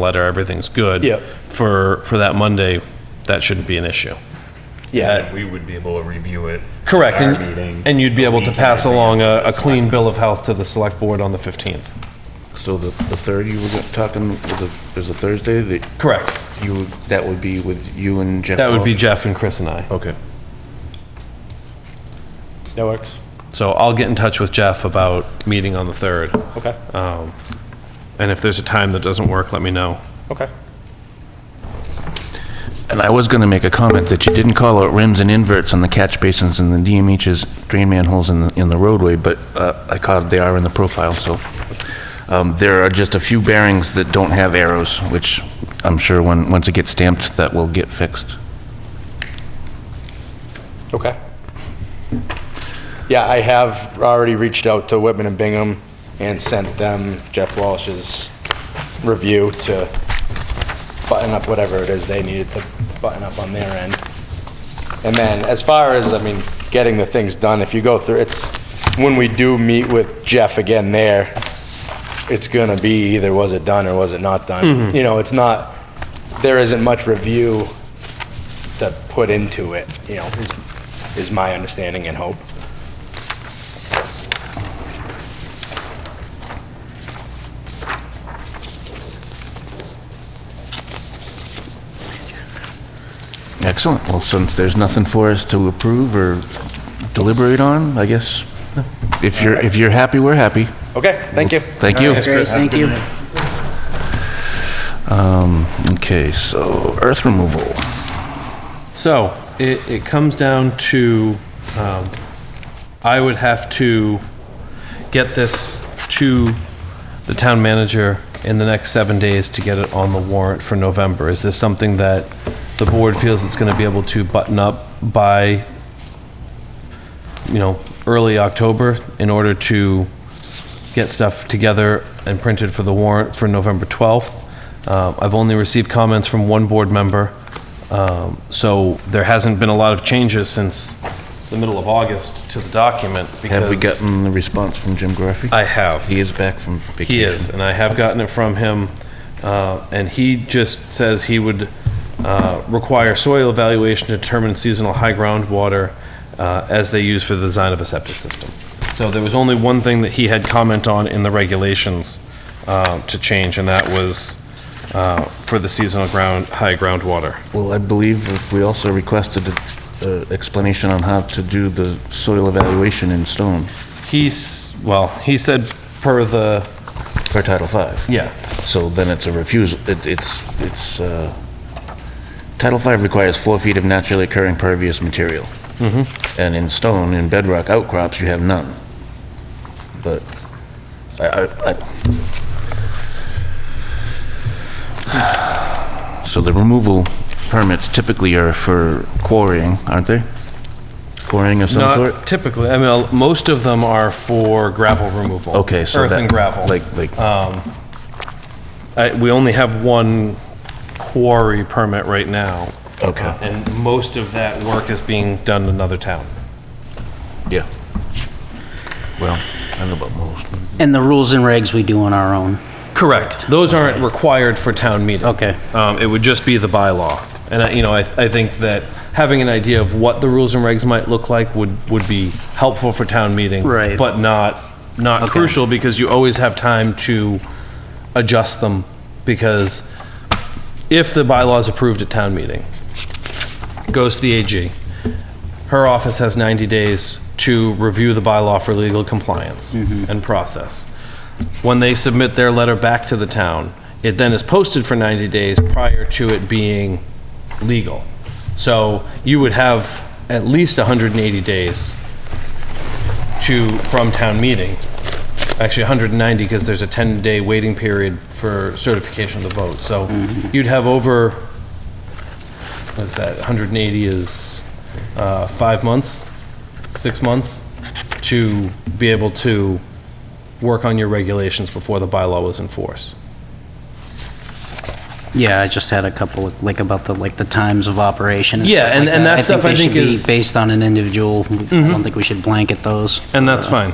letter, everything's good. Yeah. For, for that Monday, that shouldn't be an issue. Yeah, We would be able to review it. Correct, at our and, meeting, and you'd be a able to week in pass along a, a advance of the clean bill of health to the select board on the 15th. So the, the third you were go- talking, the- there's a Thursday that Correct. you, that would be with you and Jeff? That would be Wall? Jeff and Chris and I. Okay. that works. So I'll get in touch with Jeff about meeting on the 3rd. Okay, And if there's a time that doesn't work, let me know. okay. And I was going to make a comment that you didn't call out rims and inverts on the catch basins and the DMH's drain manholes in, the- in the roadway, but uh, I caught, they are in the profile, so. um, There are just a few bearings that don't have arrows, which I'm sure when, once it gets stamped, that will get fixed. Okay. Yeah, I have already reached out to Whitman and Bingham and sent them Jeff Walsh's review to button up whatever it is they needed to button up on their end. And then as far as, I mean, getting the things done, if you go through, it's, when we do meet with Jeff again there, it's gonna be either was it done or was it not done? You know, it's not, there isn't much review to put into it, you know, is, is my understanding and hope. Excellent. Well, since there's nothing for us to approve or deliberate on, I guess, if you're, if you're happy, we're happy. Okay, thank you. Thank you. Great, thank you. Um, Okay, so earth removal. So it, it comes down to, um, I would have to get this to the town manager in the next seven days to get it on the warrant for November. Is this something that the board feels it's going to be able to button up by, you know, early October in order to get stuff together and printed for the warrant for November 12th? Uh, I've only received comments from one board member. Um, So there hasn't been a lot of changes since the middle of August to the document because... Have we gotten the response from Jim Graffey? I have. He is back from vacation. He is, and I have gotten it from him. uh, And he just says he would uh, require soil evaluation to determine seasonal high groundwater uh, as they use for the design of a septic system. So there was only one thing that he had comment on in the regulations uh, to change, and that was uh, for the seasonal ground, high groundwater. Well, I believe we also requested an explanation on how to do the soil evaluation in stone He's, well, he said per the, per Title V. yeah, So then it's a refusal, it- it's, it's, uh, Title V requires four feet of naturally occurring pervious material. Mm-hmm. And in stone, in bedrock outcrops, you have none. But I, I, I... So the removal permits typically are for quarrying, aren't they? Quarrying of some sort? Not typically, I mean, most of them are for gravel removal. Okay, so Earth that- and gravel. Like, like, I, we only have one quarry permit right now. Okay. And most of that work is being done in another town. yeah. Well, I don't know about most. And the rules and regs we do on our own. Correct. Those aren't required for town meeting. Okay. Um, it would just be the bylaw. And I, you know, I, I think that having an idea of what the rules and regs might look like would, would be helpful for town meeting. Right. But not, not Okay. crucial because you always have time to adjust them because if the bylaw is approved at town meeting, goes to the AG. Her office has 90 days to review the bylaw for legal compliance and process. When they submit their letter back to the town, it then is posted for 90 days prior to it being legal. So you would have at least 180 days to, from town meeting. Actually, 190, because there's a 10-day waiting period for certification of the vote. So you'd have over, what is that, 180 is uh, five months, six months, to be able to work on your regulations before the bylaw was in force. Yeah, I just had a couple, of- like about the, like the times of operation. Yeah, stuff and- like and that stuff I think they should be is- Mm-hmm. Based on an individual, I don't think we should blanket those. And that's fine.